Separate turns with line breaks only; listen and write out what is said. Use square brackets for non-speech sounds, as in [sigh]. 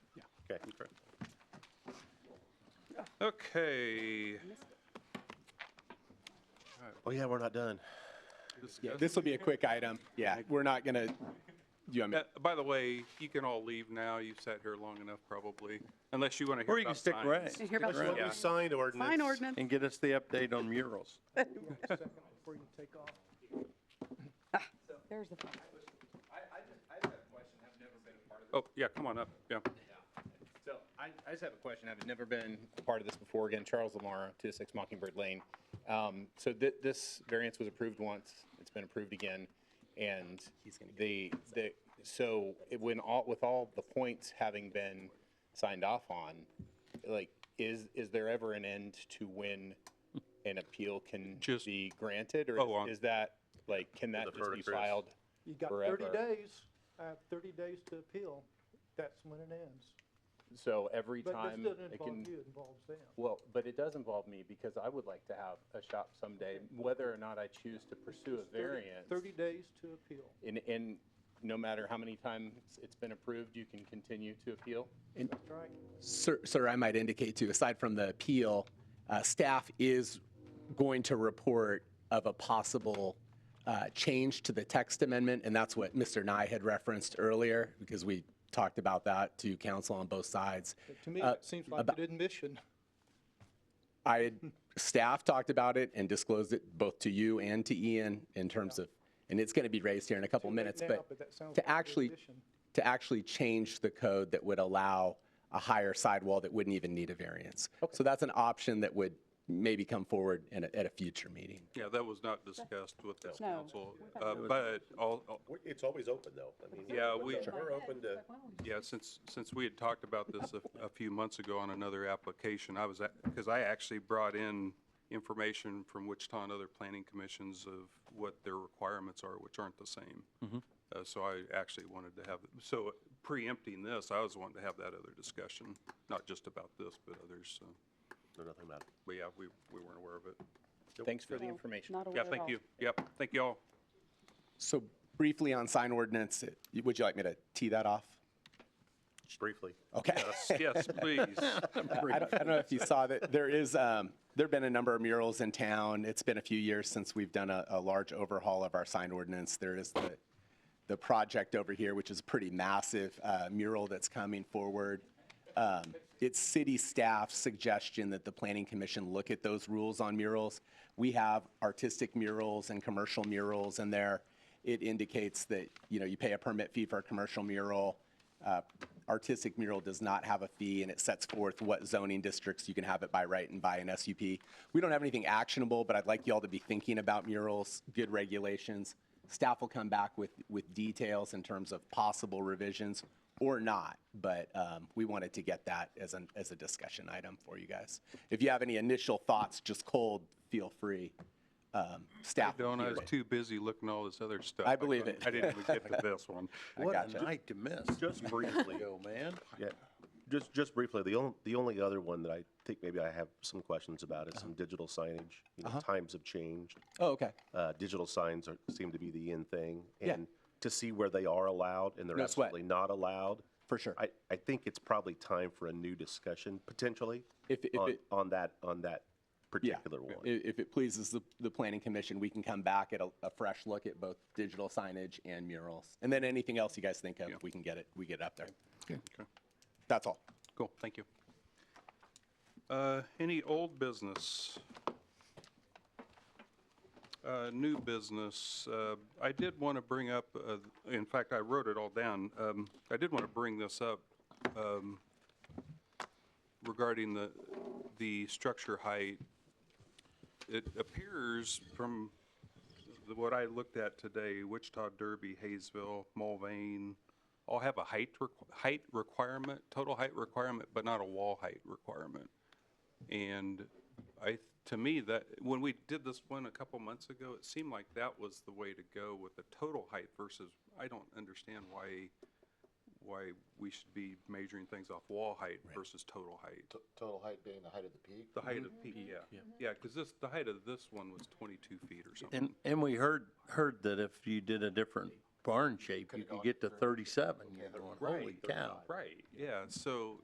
second, correct? Okay.
Oh, yeah, we're not done.
discuss-
This will be a quick item. Yeah, we're not gonna, you, I mean,
Uh, By the way, you can all leave now. You've sat here long enough, probably, unless you want to hear
Or you can
about
stick
signs.
around.
Did you hear about
What
the
we signed ordinance.
sign ordinance?
And get us the update on murals.
There's the phone.
Oh, yeah, come on up, yeah.
So I, I just have a question. I've never been a part of this before. Again, Charles Lamar, 206 Mockingbird Lane. Um, So thi- this variance was approved once, it's been approved again, and the, the, so it- when all, with all the points having been signed off on, like, is, is there ever an end to when an appeal can
Just-
be granted?
Oh,
Or
on-
is- is that, like, can that
Defer
just
to
be
Chris.
filed?
You got thirty
Forever.
days, I have thirty days to appeal, that's when it ends.
So every
But this
time
doesn't
it
involve
can
you, it involves them.
Well, but it does involve me because I would like to have a shop someday, whether or not I choose to pursue a
30
variance.
Thirty days to appeal.
And, and no matter how many times it's been approved, you can continue to appeal?
That's right.
Sir, sir, I might indicate too, aside from the appeal, uh, staff is going to report of a possible uh, change to the text amendment, and that's what Mr. Nye had referenced earlier, because we talked about that to council on both sides.
To me,
Uh,
that seems like an admission.
I, had staff talked about it and disclosed it both to you and to Ian in terms of, and it's going to be raised here in a couple
late
minutes,
now,
but
but that sounds like
to
an
actually,
addition.
to actually change the code that would allow a higher sidewall that wouldn't even need a variance. So that's an option that would maybe come forward in a, at a future meeting.
Yeah, that was not discussed with this
No.
council, uh, but all, all-
We're- It's always open, though. I mean,
Yeah,
we're-
we-
We're open to,
Yeah, since, since we had talked about this a, a few months ago on another application, I was, because I actually brought in information from Wichita and other planning commissions of what their requirements are, which aren't the same. Uh, so I actually wanted to have, so preempting this, I was wanting to have that other discussion, not just about this, but others, so.
no, nothing about it.
But yeah, we, we weren't aware of it.
Thanks for the information.
Oh, Not aware
Yeah,
at all.
thank you. Yep, thank you all.
So briefly on sign ordinance, would you like me to tee that off?
briefly.
Okay.
Yes, please.
[laughs] I don't, I don't know if you saw that, there is, um, there've been a number of murals in town. It's been a few years since we've done a, a large overhaul of our sign ordinance. There is the, the project over here, which is a pretty massive, uh, mural that's coming forward. Um, it's city staff's suggestion that the planning commission look at those rules on murals. We have artistic murals and commercial murals in there. It indicates that, you know, you pay a permit fee for a commercial mural. Uh, Artistic mural does not have a fee, and it sets forth what zoning districts you can have it by right and by an SUP. We don't have anything actionable, but I'd like y'all to be thinking about murals, good regulations. Staff will come back with, with details in terms of possible revisions or not, but um, we wanted to get that as an, as a discussion item for you guys. If you have any initial thoughts, just cold, feel free. Um, Staff. will
Don't, I
hear
was
it.
too busy looking at all this other stuff.
I believe it.
I didn't even get to this
[laughs]
one.
What a
gotcha.
night to miss.
Just briefly.
Yo, man.
Yeah, just, just briefly, the only, the only other one that I think maybe I have some questions about
Uh-huh.
is some digital signage. You know, times have changed.
Oh, okay.
Uh, digital signs are, seem to be the in thing.
Yeah.
And to see where they are allowed and they're
No sweat.
absolutely not allowed.
For sure.
I, I think it's probably time for a new discussion, potentially,
If- if
on,
it-
on that, on that
Yeah.
particular one.
I- If it pleases the, the planning commission, we can come back at a, a fresh look at both digital signage and murals. And then anything else you guys think of, we can get it, we get it up there. That's all.
Cool, thank you. Uh, Any old business? Uh, New business, uh, I did want to bring up, uh, in fact, I wrote it all down. Um, I did want to bring this up um, regarding the, the structure height. It appears from the- what I looked at today, Wichita, Derby, Hayesville, Mulvane, all have a height, requ- height requirement, total height requirement, but not a wall height requirement. And I, to me, that, when we did this one a couple months ago, it seemed like that was the way to go with the total height versus, I don't understand why, why we should be measuring things off wall height versus total height.
T- Total height being the height of the peak?
The height of peak, yeah. Yeah, because this, the height of this one was 22 feet or something.
And, and we heard, heard that if you did a different barn shape, you could get to 37. You're going, Holy cow.
Right, yeah, so